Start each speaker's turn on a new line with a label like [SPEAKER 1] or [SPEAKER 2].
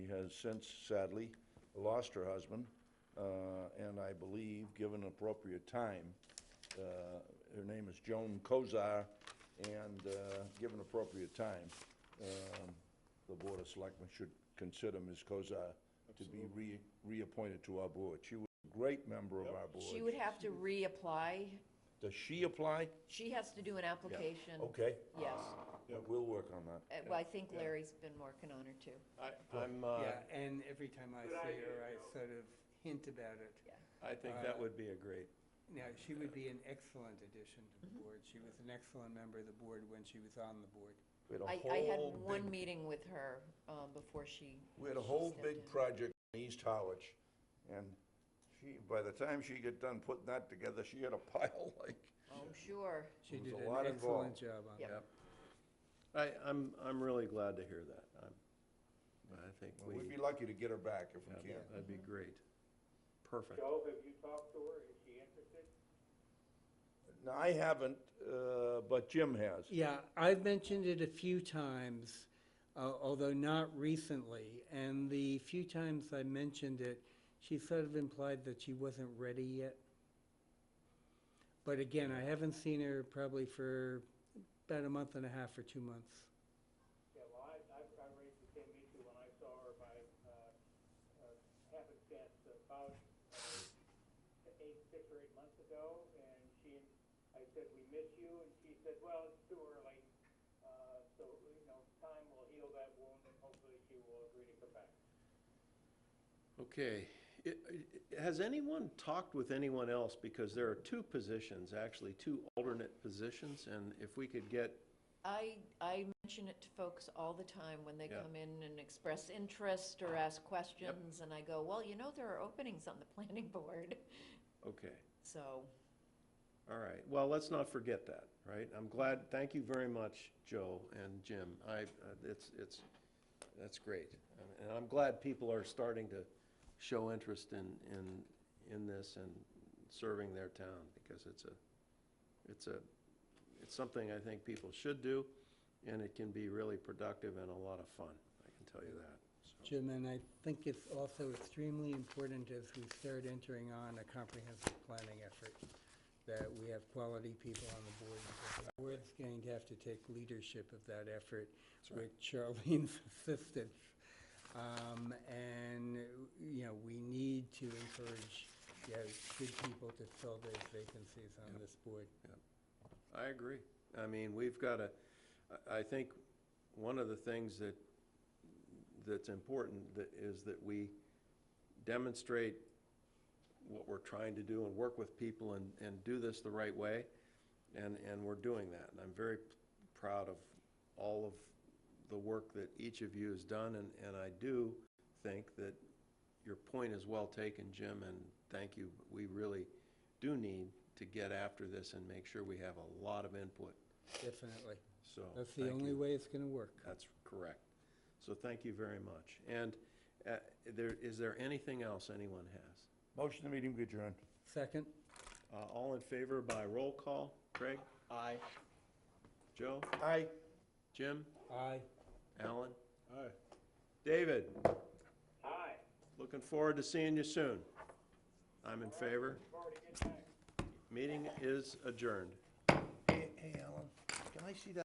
[SPEAKER 1] has since sadly lost her husband, uh, and I believe, given appropriate time, uh, her name is Joan Kozar, and uh, given appropriate time, um, the Board of Selectmen should consider Ms. Kozar to be re- reappointed to our board. She was a great member of our
[SPEAKER 2] She
[SPEAKER 1] board.
[SPEAKER 2] would have to reapply.
[SPEAKER 1] Does she apply?
[SPEAKER 2] She has to do an
[SPEAKER 1] Yeah. Oh. Ah.
[SPEAKER 2] application.
[SPEAKER 1] Okay,
[SPEAKER 2] Yes.
[SPEAKER 1] we'll work on that.
[SPEAKER 2] Uh, Well, I think Larry's been working on her too.
[SPEAKER 3] I, I'm, uh,
[SPEAKER 4] Yeah, and every time I see her, I sort of hint about it.
[SPEAKER 3] I think that would be a great,
[SPEAKER 4] Now, she would be an excellent addition to the board. She was an excellent member of the board when she was on the board.
[SPEAKER 1] We had a
[SPEAKER 2] I, I had
[SPEAKER 1] whole
[SPEAKER 2] one
[SPEAKER 1] big-
[SPEAKER 2] meeting with her um, before she.
[SPEAKER 1] We had a
[SPEAKER 2] she
[SPEAKER 1] whole
[SPEAKER 2] stepped in.
[SPEAKER 1] big project in East Harwich, and she, by the time she got done putting that together, she had a pile like,
[SPEAKER 2] I'm Oh, sure.
[SPEAKER 4] She
[SPEAKER 1] There was
[SPEAKER 4] did
[SPEAKER 1] a
[SPEAKER 4] an
[SPEAKER 1] lot
[SPEAKER 4] excellent
[SPEAKER 1] involved.
[SPEAKER 4] job on
[SPEAKER 2] Yep.
[SPEAKER 4] that.
[SPEAKER 3] I, I'm, I'm really glad to hear that. I'm, I think we,
[SPEAKER 1] we'd be lucky to get her back if we can.
[SPEAKER 3] that'd be great. Perfect.
[SPEAKER 5] Joe, have you talked to her? Is she interested?
[SPEAKER 1] Now, I haven't, uh, but Jim has.
[SPEAKER 4] Yeah, I've mentioned it a few times, uh, although not recently. And the few times I mentioned it, she sort of implied that she wasn't ready yet. But again, I haven't seen her probably for about a month and a half or two months.
[SPEAKER 5] Yeah, well, I, I, I raised the same issue when I saw her by, uh, uh, happenstance about uh, eight, six or eight months ago, and she, I said, we miss you, and she said, well, it's too early, uh, so, you know, time will heal that wound, and hopefully she will agree to come back.
[SPEAKER 3] Okay. I- I- Has anyone talked with anyone else? Because there are two positions, actually, two alternate positions, and if we could get,
[SPEAKER 2] I, I mention it to folks all the time when they
[SPEAKER 3] Yeah.
[SPEAKER 2] come in and express interest or ask questions. And I go, well, you know, there are openings on the planning board.
[SPEAKER 3] okay,
[SPEAKER 2] So,
[SPEAKER 3] all right. Well, let's not forget that, right? I'm glad, thank you very much, Joe and Jim. I, uh, it's, it's, that's great. And I'm glad people are starting to show interest in, in, in this and serving their town, because it's a, it's a, it's something I think people should do, and it can be really productive and a lot of fun, I can tell you that.
[SPEAKER 4] Jim, and I think it's also extremely important as we start entering on a comprehensive planning effort, that we have quality people on the board, because the board's going to have to take leadership of that effort with Charlene's assistance. Um, and, you know, we need to encourage, you know, good people to fill those vacancies on this board.
[SPEAKER 3] I agree. I mean, we've got a, I, I think one of the things that, that's important that is that we demonstrate what we're trying to do and work with people and, and do this the right way. And, and we're doing that. And I'm very proud of all of the work that each of you has done. And, and I do think that your point is well taken, Jim, and thank you. We really do need to get after this and make sure we have a lot of input,
[SPEAKER 4] Definitely.
[SPEAKER 3] so.
[SPEAKER 4] That's the
[SPEAKER 3] thank
[SPEAKER 4] only
[SPEAKER 3] you.
[SPEAKER 4] way it's going to work.
[SPEAKER 3] That's correct. So thank you very much. And uh, there, is there anything else anyone has?
[SPEAKER 1] Motion to meeting adjourned.
[SPEAKER 4] Second?
[SPEAKER 3] Uh, All in favor by roll call? Craig? Aye. Joe?
[SPEAKER 1] Aye.
[SPEAKER 3] Jim?
[SPEAKER 4] Aye.
[SPEAKER 3] Alan? Aye. David,
[SPEAKER 5] Hi.
[SPEAKER 3] looking forward to seeing you soon. I'm in favor. Meeting is adjourned.
[SPEAKER 1] Hey, Alan, can I see that